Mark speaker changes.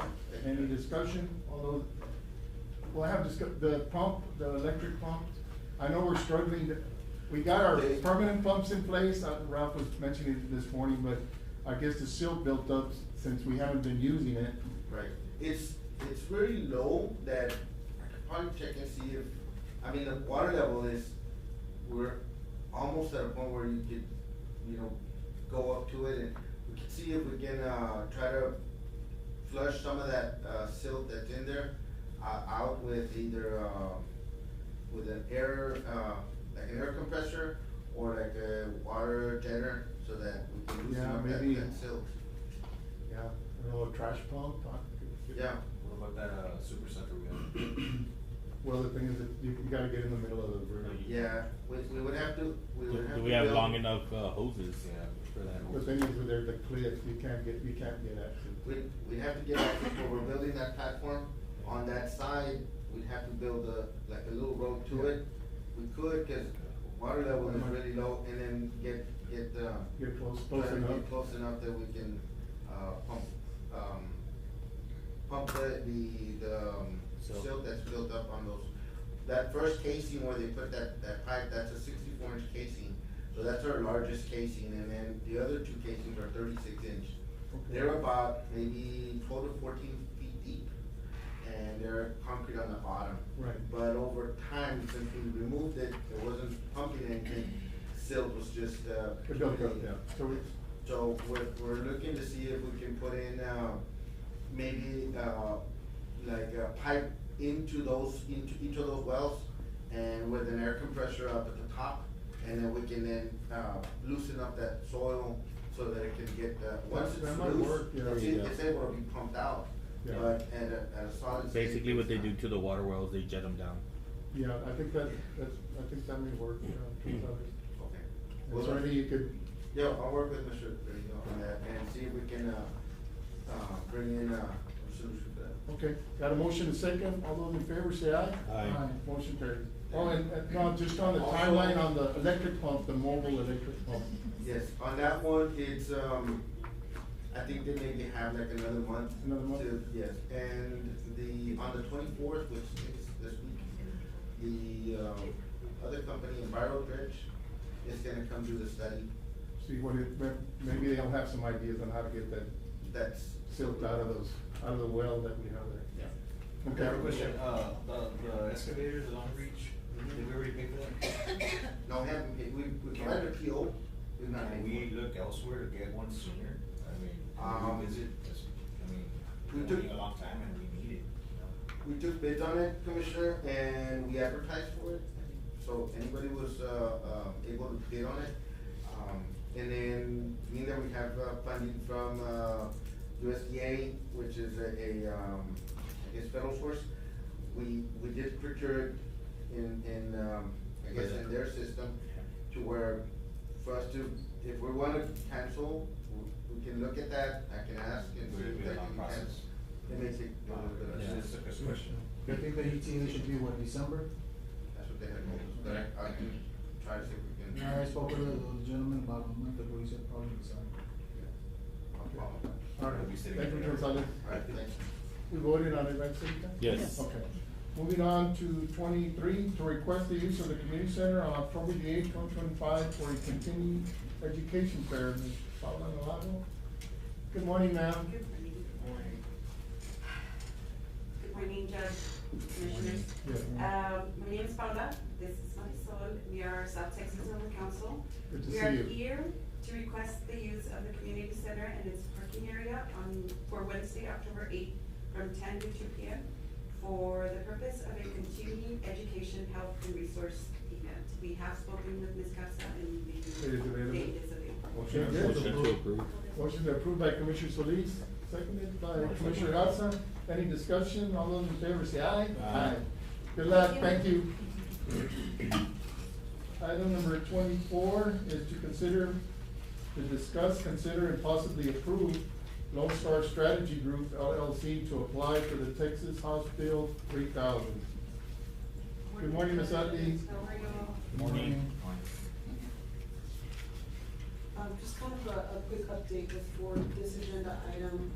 Speaker 1: Uh, Any discussion, although, we'll have discuss, the pump, the electric pump, I know we're struggling, to- we got our
Speaker 2: They-
Speaker 1: permanent pumps in place, Uh, Ralph was mentioning it this morning, but I guess the silt built up since we haven't been using it.
Speaker 2: Right, it's, it's very low that I could probably check and see if, I mean, the water level is, we're almost at a point where you could, you know, go up to it and we can see if we can, uh, try to flush some of that, uh, silt that's in there, uh, out with either, uh, with an air, uh, like an air compressor or like a water jetter so that we can loosen
Speaker 1: Yeah,
Speaker 2: up that,
Speaker 1: maybe.
Speaker 2: that silt,
Speaker 1: Yeah, a little trash pump, huh?
Speaker 2: yeah.
Speaker 3: What about that, uh, super center we have?
Speaker 1: Well, the thing is that you, you gotta get in the middle of the river.
Speaker 2: Yeah, we, we would have to, we would have to.
Speaker 4: Do we have
Speaker 2: build-
Speaker 4: long enough uh, hoses for
Speaker 1: The
Speaker 4: that?
Speaker 1: thing is with there, the cliff, you can't get, you can't get at it.
Speaker 2: We, we have to get, out before we're building that platform, on that side, we'd have to build a, like a little road to it. We could, cause water level is really low, and then get, get, uh.
Speaker 1: Get close, close
Speaker 2: try to get
Speaker 1: enough.
Speaker 2: Close enough that we can, uh, pump, um, pump the, the, the, um,
Speaker 4: Silt.
Speaker 2: silt that's built up on those. That first casing where they put that, that pipe, that's a sixty-four inch casing, so that's our largest casing, and then the other two casings are thirty-six inch.
Speaker 1: Okay.
Speaker 2: They're about maybe twelve to fourteen feet deep, and they're concrete on the bottom.
Speaker 1: Right.
Speaker 2: But over time, since we removed it, it wasn't pumping anything, silt was just, uh.
Speaker 1: It built up, yeah, so we,
Speaker 2: So we're, we're looking to see if we can put in, uh, maybe, uh, like a pipe into those, into each of those wells and with an air compressor up at the top, and then we can then, uh, loosen up that soil so that it can get, uh, once
Speaker 1: That- that
Speaker 2: it's
Speaker 1: might
Speaker 2: loose,
Speaker 1: work, yeah.
Speaker 2: it's,
Speaker 4: Yeah.
Speaker 2: it's able to be pumped out,
Speaker 1: Yeah.
Speaker 2: but at a, at a solid state.
Speaker 4: Basically, what they
Speaker 2: it's
Speaker 4: do
Speaker 2: not-
Speaker 4: to the water wells, they jet them down.
Speaker 1: yeah, I think that, that's, I think that may work, you
Speaker 3: Hmm.
Speaker 1: know,
Speaker 2: Okay.
Speaker 1: Is
Speaker 2: Well,
Speaker 1: there any you could,
Speaker 2: Yeah, I'll work with Mr. Grillo on that and see if we can, uh, uh, bring in, uh, a solution for that.
Speaker 1: okay, got a motion and second, all those in favor say aye?
Speaker 4: Aye.
Speaker 1: Motion carries. Oh, and, and, no, just on the timeline on the electric pump, the mobile electric pump,
Speaker 2: Yes, on that one, it's, um, I think they maybe have like another month.
Speaker 1: Another month?
Speaker 2: to- Yes, and the, on the twenty-fourth, which is this week, the, um, other company, Enviro Dredge, is gonna come do the study.
Speaker 1: see what it, may- maybe they'll have some ideas on how to get that
Speaker 2: That's.
Speaker 1: silt out of those, out of the well that we have there.
Speaker 3: Yeah.
Speaker 1: Okay.
Speaker 3: Quick question, uh, the, the excavators along Reach, did we already pay for that?
Speaker 2: No, we haven't, paid- we, we provided a PO, we've not
Speaker 3: Can
Speaker 2: paid
Speaker 3: we
Speaker 2: for it.
Speaker 3: look elsewhere to get one sooner? I mean,
Speaker 2: Um,
Speaker 3: is it, I mean,
Speaker 2: we
Speaker 3: we
Speaker 2: took-
Speaker 3: took a long time and we need it, you know?
Speaker 2: We took bids on it, Commissioner, and we advertised for it, so anybody was, uh, uh, able to bid on it. Um, and then, mean that we have, uh, funding from, uh, USDA, which is a, a, um, I guess federal source. We, we did procure it in, in, um, I guess in their system, to where for us to, if we wanna cancel, we, we can look at that, I can ask and see
Speaker 3: Would it
Speaker 2: if
Speaker 3: be a
Speaker 2: that
Speaker 3: long
Speaker 2: can
Speaker 3: process?
Speaker 2: cancel. It may take a little bit of.
Speaker 3: It's just a good question.
Speaker 5: I think the eighteen should be what, December?
Speaker 2: That's what they had told us, but I, I can try to see if we can.
Speaker 5: I spoke with the the gentleman about a month ago, he said probably December.
Speaker 2: I'll follow that.
Speaker 1: All right,
Speaker 3: We said it
Speaker 1: thank you,
Speaker 3: earlier.
Speaker 1: Gonzalez.
Speaker 2: All right, thanks.
Speaker 1: We voted on it, right, Cynthia?
Speaker 4: Yes. Yes.
Speaker 1: Okay. Moving on to twenty-three, to request the use of the community center on October the eighth, twenty twenty-five for a continuing education fair. Ms. Paula Navarro? Good morning, ma'am.
Speaker 6: Good morning. Good morning, Judge, Commissioners.
Speaker 1: Good morning. Yeah.
Speaker 6: Um, my name is Paula, this is Marisol, we are South Texas Zone Council.
Speaker 1: Good to
Speaker 6: We
Speaker 1: see
Speaker 6: are
Speaker 1: you.
Speaker 6: here to request the use of the community center and its parking area on, for Wednesday, October eighth, from ten to two P M, for the purpose of a continuing education, health, and resource event. We have spoken with Ms. Casa and the
Speaker 1: It is available.
Speaker 6: date is available.
Speaker 1: Motion to
Speaker 4: Motion to
Speaker 1: approve.
Speaker 4: approve.
Speaker 1: Motion approved by Commissioner Solis, seconded by Commissioner Garza. Any discussion? All those in favor say aye.
Speaker 4: Aye.
Speaker 1: Good luck, thank you. Item number twenty-four is to consider, to discuss, consider, and possibly approve Lone Star Strategy Group LLC to apply for the Texas House Bill three thousand. Good morning, Ms. Utley.
Speaker 6: How are you?
Speaker 4: Morning.
Speaker 7: Um, just kind of a, a quick update before this agenda item